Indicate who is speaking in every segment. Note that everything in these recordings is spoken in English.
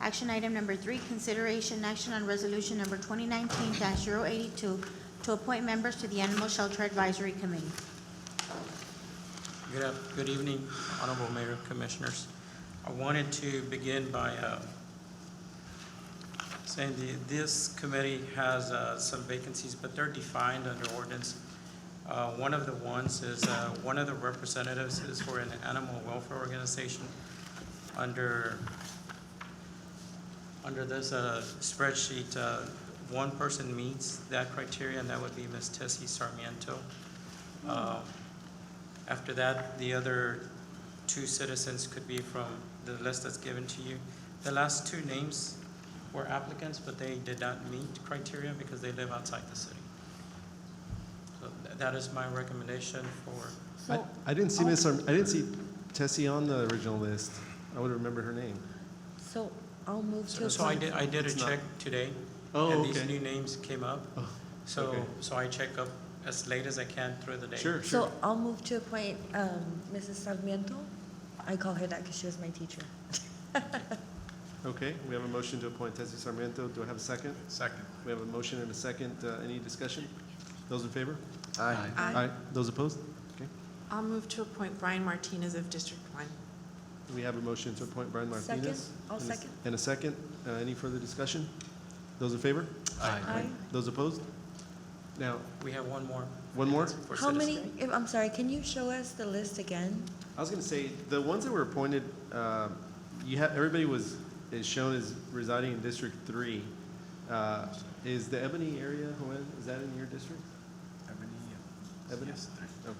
Speaker 1: Action item number three, consideration and action on resolution number twenty nineteen 82 to appoint members to the Animal Shelter Advisory Committee.
Speaker 2: Good, up- good evening, Honorable Mayor Commissioners. I wanted to begin by uh, saying that this committee has uh, some vacancies, but they're defined under ordinance. Uh, One of the ones is, uh, one of the representatives is for an animal welfare organization under, under this uh, spreadsheet. uh, One person meets that criteria, and that would be Ms. Tessie Sarmiento. Uh, after that, the other two citizens could be from the list that's given to you. The last two names were applicants, but they did not meet criteria because they live outside the city. So tha- that is my recommendation for,
Speaker 3: I,
Speaker 1: So,
Speaker 3: I didn't see
Speaker 4: Oh.
Speaker 3: Miss, Arm- I didn't see Tessie on the original list. I would remember her name.
Speaker 4: So I'll move to
Speaker 2: so- so I
Speaker 4: appoint.
Speaker 2: did, I did a
Speaker 3: It's not-
Speaker 2: check today.
Speaker 3: Oh,
Speaker 2: And these
Speaker 3: okay.
Speaker 2: new names came up,
Speaker 3: Oh,
Speaker 2: so,
Speaker 3: okay.
Speaker 2: so I check up as late as I can through the day.
Speaker 3: Sure, sure.
Speaker 4: So I'll move to appoint um, Mrs. Sarmiento. I call her that because she was my teacher.
Speaker 3: Okay, we have a motion to appoint Tessie Sarmiento. Do I have a second? Second. We have a motion and a second. Uh, Any discussion? Those in favor? Aye.
Speaker 5: Aye.
Speaker 3: Those opposed? Okay.
Speaker 5: I'll move to appoint Brian Martinez of District One.
Speaker 3: We have a motion to appoint Brian Martinez.
Speaker 4: Second. I'll
Speaker 3: and a s-
Speaker 4: second.
Speaker 3: And a second. Uh, Any further discussion? Those in favor?
Speaker 4: Aye.
Speaker 3: Those opposed? Now,
Speaker 2: We have one more.
Speaker 3: One more?
Speaker 2: for
Speaker 4: How many,
Speaker 2: citizen.
Speaker 4: if- I'm sorry, can you show us the list again?
Speaker 3: I was going to say, the ones that were appointed, uh, you have, everybody was, is shown as residing in District Three. Uh, Is the Ebony area, Juan, is that in your district? Ebony, yes. Okay.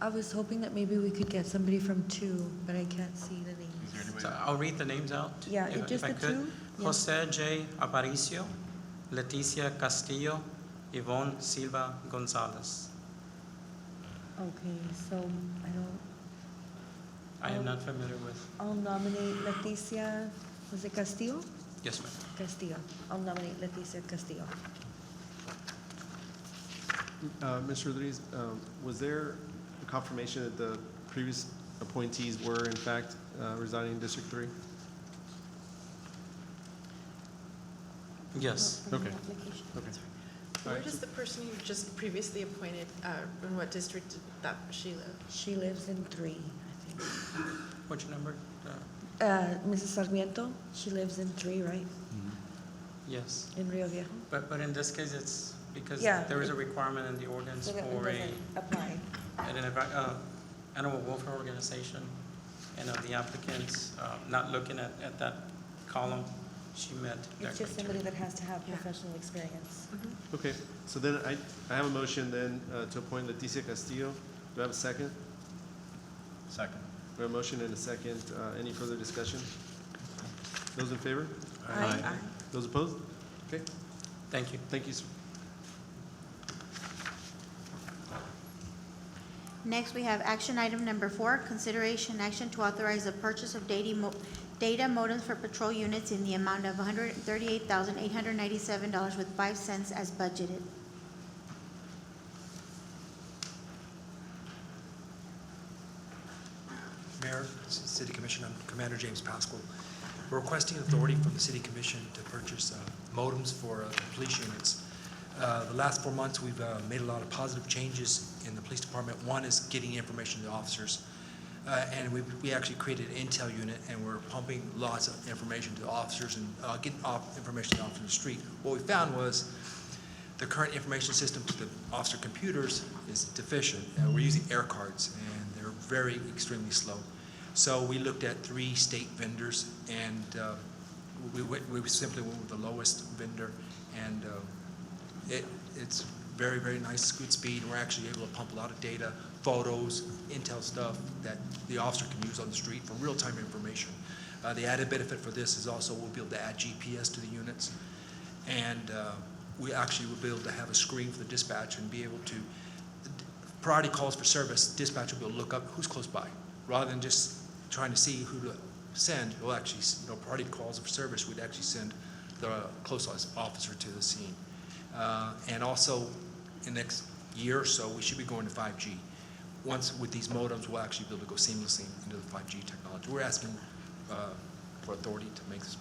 Speaker 4: I was hoping that maybe we could get somebody from two, but I can't see the names.
Speaker 2: So I'll read the names out.
Speaker 4: Yeah,
Speaker 2: if-
Speaker 4: it just
Speaker 2: if I
Speaker 4: the
Speaker 2: could.
Speaker 4: two? Yeah.
Speaker 2: Jose J. Aparicio, Leticia Castillo, Yvonne Silva Gonzalez.
Speaker 4: Okay, so I don't,
Speaker 2: I am
Speaker 4: Oh.
Speaker 2: not familiar with,
Speaker 4: I'll nominate Leticia, was it Castillo?
Speaker 2: yes, ma'am.
Speaker 4: Castillo. I'll nominate Leticia Castillo.
Speaker 3: Uh, Mr. Rodriguez, um, was there a confirmation that the previous appointees were in fact uh, residing in District Three?
Speaker 2: Yes,
Speaker 3: Okay. Okay. All
Speaker 5: Where
Speaker 3: right,
Speaker 5: does the person you just previously appointed, uh, in what district did that she live?
Speaker 4: She lives in three, I think.
Speaker 2: which number? Uh,
Speaker 4: Uh, Mrs. Sarmiento, she lives in three, right?
Speaker 2: Yes,
Speaker 4: In Rio Viejo?
Speaker 2: but, but in this case, it's because
Speaker 4: Yeah.
Speaker 2: there is a requirement in the ordinance
Speaker 4: So that one
Speaker 2: for a,
Speaker 4: doesn't apply.
Speaker 2: an envi- uh, animal welfare organization, and of the applicants, uh, not looking at, at that column, she met that
Speaker 4: It's just
Speaker 2: criteria.
Speaker 4: somebody that has to have
Speaker 5: Yeah.
Speaker 4: professional experience.
Speaker 3: okay. So then I, I have a motion then uh, to appoint Leticia Castillo. Do I have a second?
Speaker 6: Second.
Speaker 3: We have a motion and a second. Uh, Any further discussion? Those in favor?
Speaker 5: Aye.
Speaker 3: Those opposed? Okay,
Speaker 2: Thank you.
Speaker 3: thank you, sir.
Speaker 1: Next, we have action item number four, consideration and action to authorize the purchase of data mo- data modems for patrol units in the amount of hundred thirty-eight thousand eight hundred ninety-seven dollars with five cents as budgeted.
Speaker 7: Mayor, C- City Commission, I'm Commander James Pascal. We're requesting authority from the City Commission to purchase uh, modems for uh, the police units. Uh, The last four months, we've uh, made a lot of positive changes in the police department. One is getting information to officers. Uh, And we, we actually created an intel unit, and we're pumping lots of information to officers and uh, getting off, information off in the street. What we found was, the current information system to the officer computers is deficient. Uh, We're using air cards, and they're very extremely slow. So we looked at three state vendors, and uh, we went- we simply went with the lowest vendor, and uh, it it's very, very nice, good speed. We're actually able to pump a lot of data, photos, intel stuff that the officer can use on the street for real-time information. Uh, The added benefit for this is also we'll be able to add GPS to the units. And uh, we actually will be able to have a screen for the dispatch and be able to, priority calls for service, dispatch will be able to look up who's close by, rather than just trying to see who to send, we'll actually, s- you know, priority calls for service, we'd actually send the closest officer to the scene. Uh, And also, in the next year or so, we should be going to 5G. Once with these modems, we'll actually be able to go seamlessly into the 5G technology. We're asking uh, for authority to make this